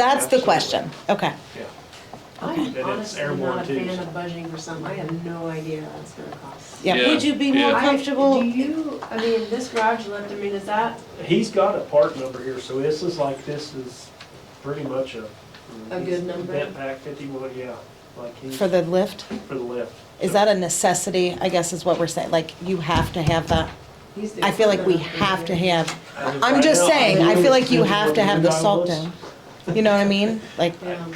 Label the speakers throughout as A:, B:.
A: That's the question, okay.
B: Yeah.
C: I'm
B: And it's
C: honestly
B: airborne
C: not a
B: too,
C: fan
B: so-
C: of budging for something, I have no idea what that's gonna cost.
A: Yeah.
D: Yeah,
A: Would you be more
D: yeah.
C: I- Do
A: comfortable?
C: you, I mean, this garage left, I mean, is that,
B: He's got a part number here, so this is like, this is pretty much a.
C: A good number?
B: Vent pack fifty-one, yeah, like he,
A: For
B: for
A: the lift?
B: the lift.
A: Is that a necessity, I guess is what we're saying, like, you have to have that?
C: he's the.
A: I feel like we
C: equipment
A: have to
C: operator.
A: have,
B: As of
A: I'm
B: right
A: just
B: now,
A: saying, I feel like you have to have the salt
B: $1,000.
A: down. You know what I mean? Like,
C: Yeah. Um,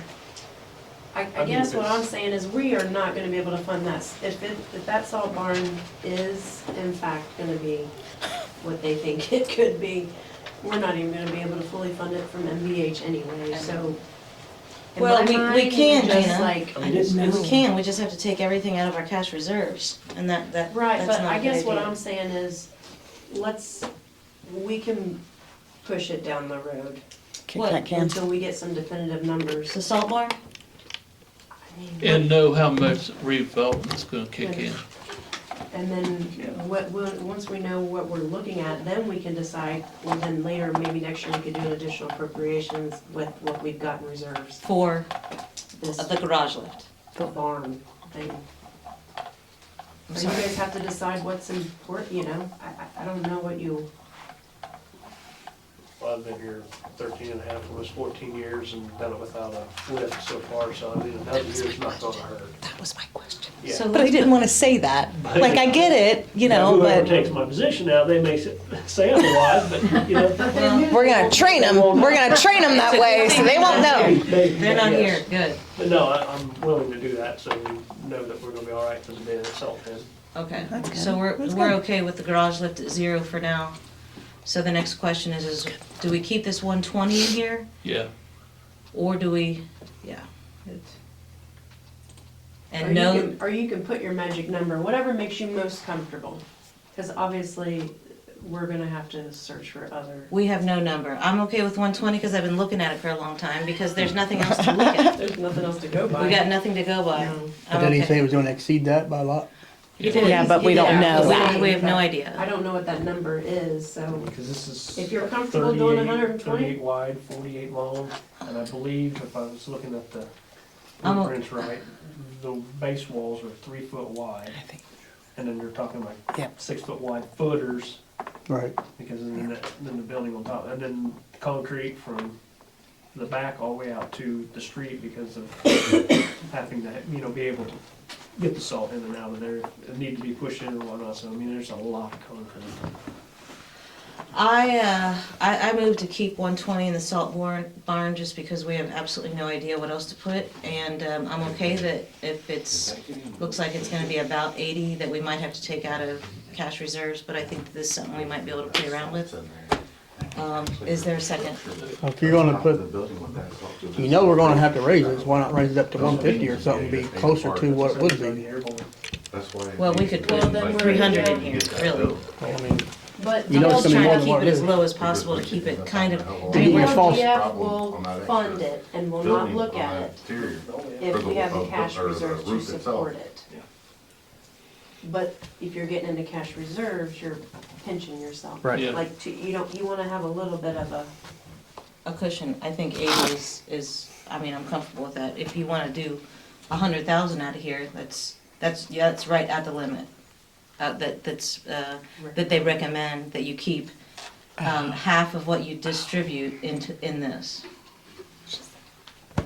C: I,
B: I
C: I
B: mean,
C: guess what
B: it's-
C: I'm saying is we are not gonna be able to fund that. If it, if that salt barn is in fact gonna be what they think it could be, we're not even gonna be able to fully fund it from MVH anyway, so. in
E: Well,
C: my
E: we- we
C: mind,
E: can,
C: Just
E: Gina.
C: like,
B: I mean, it's, it's-
E: We can, we just have to take everything out of our cash reserves, and that, that, that's not a
C: right,
E: good
C: but I guess what
E: idea.
C: I'm saying is, let's, we can push it down the road
A: kick
E: What?
A: that can.
C: until we get some definitive numbers.
E: The salt barn,
C: I mean,
D: and know how much revolving is gonna kick in.
C: And then, what, we'll- once we know what we're looking at, then we can decide, well, then later, maybe next year, we could do additional appropriations with what we've got in reserves,
E: for
C: this
E: the garage lift.
C: barn thing. Or you guys have to decide what's important, you know, I, I, I don't know what you,
B: I've been here thirteen and a half, almost fourteen years and done it without a lift so far, so I mean, another year's not gonna hurt.
A: That was my question.
B: Yeah.
E: So
A: But I
E: let's
A: didn't
E: put-
A: want to say that. Like, I get it, you know,
B: Whoever
A: but
B: takes my position now, they may s- say otherwise, but you know.
A: we're going to train them. We're going to train them that way so they won't know.
B: they-
E: They're not
B: yes.
E: here, good,
B: But no, I, I'm willing to do that, so we know that we're gonna be all right for the day of salt then.
E: okay.
A: That's good.
E: So we're,
A: That's
E: we're
A: good.
E: okay with the garage lift at zero for now. So the next question is, is do we keep this one twenty in here,
D: Yeah,
E: or do we, yeah. it-
C: or
E: And
C: you
E: no,
C: can, or you can put your magic number, whatever makes you most comfortable. Cause obviously, we're gonna have to search for other,
E: we have no number. I'm okay with one twenty, cause I've been looking at it for a long time, because there's nothing else to look at.
C: there's nothing else to go by.
E: We got nothing to go by.
C: No.
F: But
E: I'm
F: then he
E: okay.
F: said he was gonna exceed that by a lot.
E: did.
A: Yeah, but we don't know
E: We-
A: that.
E: We have no
C: I
E: idea.
C: don't know what that number is, so.
B: Because this is.
C: If you're comfortable doing
B: 38
C: 120?
B: 38 wide, forty-eight long, and I believe if I was looking at the
E: I'm o-
B: blueprints right, the base walls are three foot wide.
A: think-
B: And then you're talking like
A: Yep.
B: six foot wide footers,
F: Right.
B: because then the, then the building on top, and then concrete from the back all the way out to the street because of having to, you know, be able to get the salt in and out of there, it need to be pushed in and whatnot, so I mean, there's a lot of concrete.
E: I, uh, I, I moved to keep one twenty in the salt barn, barn just because we have absolutely no idea what else to put. And, um, I'm okay that if it's, looks like it's gonna be about eighty, that we might have to take out of cash reserves, but I think this is something we might be able to play around with. Um, is there a second?
F: If you're gonna put, you know we're gonna have to raise this, why not raise it up to one fifty or something, be closer to what it would be?
E: Well, we could put three hundred in here, really.
F: I mean,
C: But
F: You
E: I'm
F: know it's
E: just
F: gonna be
E: trying to
F: more than
E: keep
F: what
E: it
F: it
E: as
F: is.
E: low as possible to keep it kind of, I mean,
F: Maybe
E: we're
F: a false
C: LGF will fund it and will not look at it if we have the cash reserves to support it.
B: Yeah.
C: But if you're getting into cash reserves, you're pinching yourself.
F: Right.
D: Yeah.
C: Like, to- you don't, you wanna have a little bit of a,
E: a cushion, I think eighty is, is, I mean, I'm comfortable with that. If you wanna do a hundred thousand out of here, that's, that's, yeah, that's right at the limit. Uh, that, that's, uh, that they recommend that you keep, um, half of what you distribute into, in this.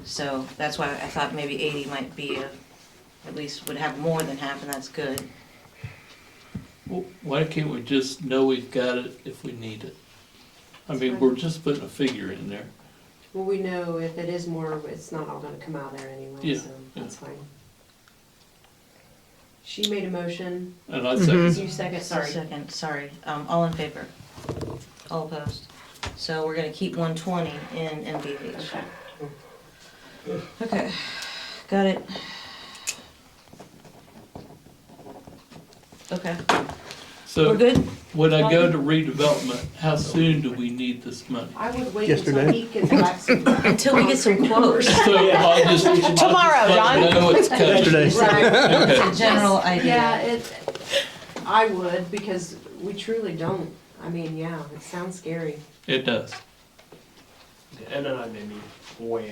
E: So that's why I thought maybe eighty might be a, at least would have more than half, and that's good.
D: Well, why can't we just know we've got it if we need it? I mean, we're just putting a figure in there.
C: well, we know if it is more, it's not all gonna come out there anyway,
D: Yeah,
C: so
D: yeah.
C: that's fine. She made a motion,
D: And I say,
C: you second, sorry.
E: Second, sorry, um, all in favor? All opposed? So we're gonna keep one twenty in MVH.
C: Okay.
E: Okay, got it. Okay, we're
D: so
E: good?
D: when I go to redevelopment, how soon do we need this money?
C: I would wait until
F: Yesterday.
C: he gets back some.
E: Until we get some quotes,
D: So I'll just. I'll just
A: Tomorrow,
D: let
A: John.
D: them Know it's coming.
F: yesterday,
C: Right.
D: Okay.
E: a general
C: Yeah,
E: idea.
C: it, I would, because we truly don't. I mean, yeah, it sounds scary.
D: It does.
B: And then I may be way